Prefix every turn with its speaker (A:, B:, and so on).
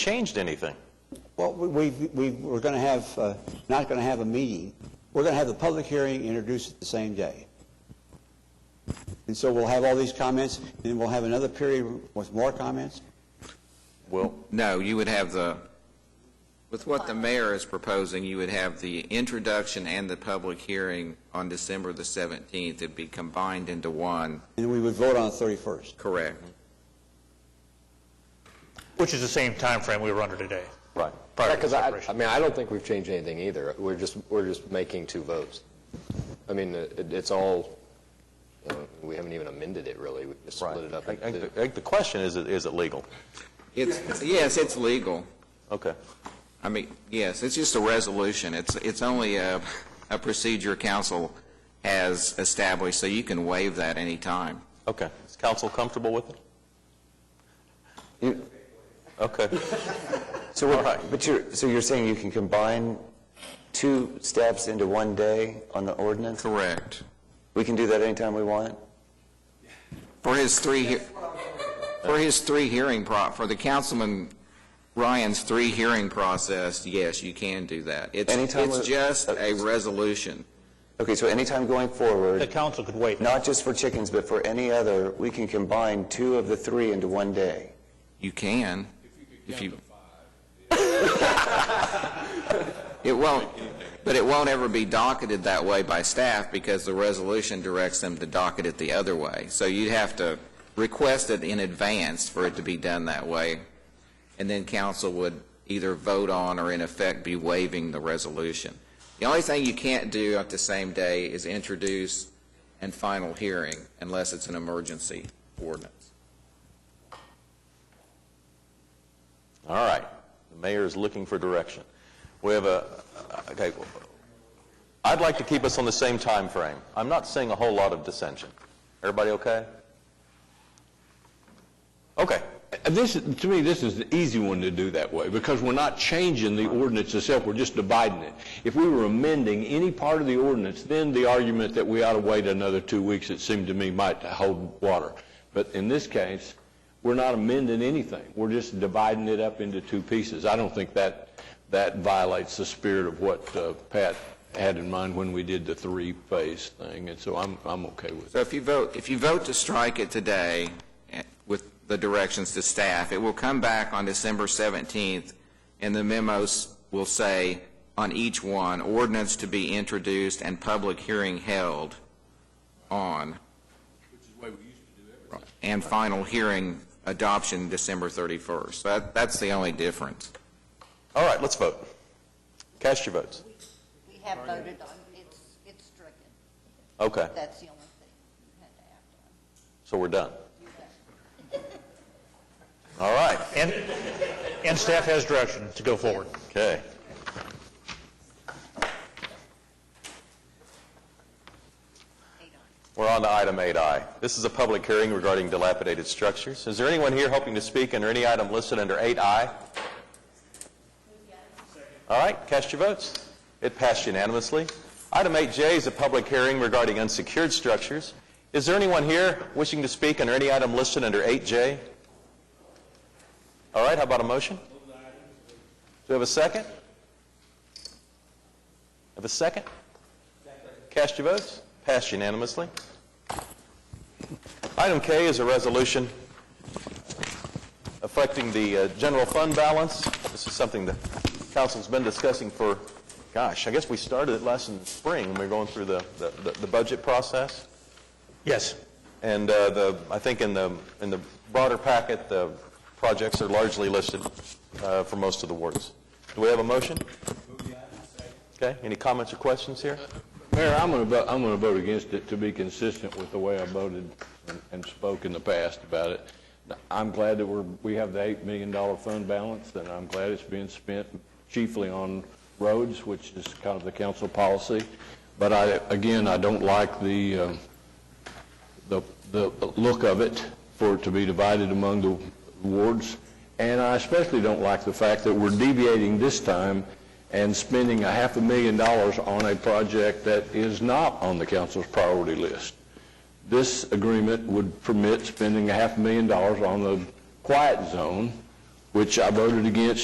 A: changed anything.
B: Well, we, we- we, we're going to have, uh, not going to have a meeting. We're going to have the public hearing, introduced it the same day. And so we'll have all these comments, and then we'll have another period with more comments.
A: Well,
C: No, you would have the, with what the mayor is proposing, you would have the introduction and the public hearing on December the 17th. It'd be combined into one,
B: And we would vote on the 31st.
C: correct?
D: Which is the same time frame we were under today.
A: right.
D: prior to
E: Because I,
D: separation.
E: I mean, I don't think we've changed anything either. We're just, we're just making two votes. I mean, it- it's all, uh, we haven't even amended it, really. We just
A: Right.
E: split it up.
A: I- I-
E: into-
A: I think The question is, is it legal?
C: It's, yes, it's legal.
A: Okay.
C: I mean, yes, it's just a resolution. It's, it's only a, a procedure council has established, so you can waive that any time.
A: Okay. Is council comfortable with it?
F: You-
A: Okay.
F: So
A: All
F: what,
A: right.
F: but you're, so you're saying you can combine two steps into one day on the ordinance?
C: Correct.
F: We can do that anytime we want?
C: For his three, hea- for his three hearing pro, for the Councilman Ryan's three hearing process, yes, you can do that. It's,
F: Anytime
C: it's
F: we- uh,
C: just a resolution.
F: Okay, so anytime going
D: The
F: forward,
D: council could wait.
F: not just for chickens, but for any other, we can combine two of the three into one day?
C: You can, if you. It won't, but it won't ever be docketed that way by staff because the resolution directs them to docket it the other way. So you'd have to request it in advance for it to be done that way. And then council would either vote on or in effect be waiving the resolution. The only thing you can't do at the same day is introduce and final hearing unless it's an emergency ordinance.
A: All right. The mayor is looking for direction. We have a, okay, I'd like to keep us on the same time frame. I'm not seeing a whole lot of dissension. Everybody okay? Okay.
G: This, is- to me, this is the easy one to do that way, because we're not changing the ordinance itself, we're just dividing it. If we were amending any part of the ordinance, then the argument that we ought to wait another two weeks, it seemed to me, might hold water. But in this case, we're not amending anything, we're just dividing it up into two pieces. I don't think that, that violates the spirit of what uh, Pat had in mind when we did the three-phase thing, and so I'm, I'm okay with it.
C: So if you vote, if you vote to strike it today eh, with the directions to staff, it will come back on December 17th, and the memos will say on each one, ordinance to be introduced and public hearing held on. Which is the way we used to do everything. And final hearing adoption December 31st. That, that's the only difference.
A: All right, let's vote. Cast your votes.
H: We have voted on, it's, it's stricken.
A: Okay,
H: That's the only thing you had to act on.
A: so we're done. All right.
D: And, and staff has direction to go forward.
A: Okay. We're on to item 8I. This is a public hearing regarding dilapidated structures. Is there anyone here hoping to speak under any item listed under 8I? All right, cast your votes. It passed unanimously. Item 8J is a public hearing regarding unsecured structures. Is there anyone here wishing to speak under any item listed under 8J? All right, how about a motion? Do we have a second? Have a second? Cast your votes. Passed unanimously. Item K is a resolution affecting the uh, general fund balance. This is something the council's been discussing for, gosh, I guess we started it last in the spring when we were going through the, the- the- the budget process.
D: Yes.
A: And uh, the, I think in the, in the broader packet, the projects are largely listed uh, for most of the wards. Do we have a motion? Okay, any comments or questions here?
G: Mayor, I'm going to vote, I'm going to vote against it to be consistent with the way I voted and- and spoke in the past about it. I'm glad that we're, we have the $8 million fund balance, and I'm glad it's being spent chiefly on roads, which is kind of the council policy. But I, again, I don't like the, um, the, the look of it, for it to be divided among the wards. And I especially don't like the fact that we're deviating this time and spending a half a million dollars on a project that is not on the council's priority list. This agreement would permit spending a half a million dollars on the quiet zone which I voted against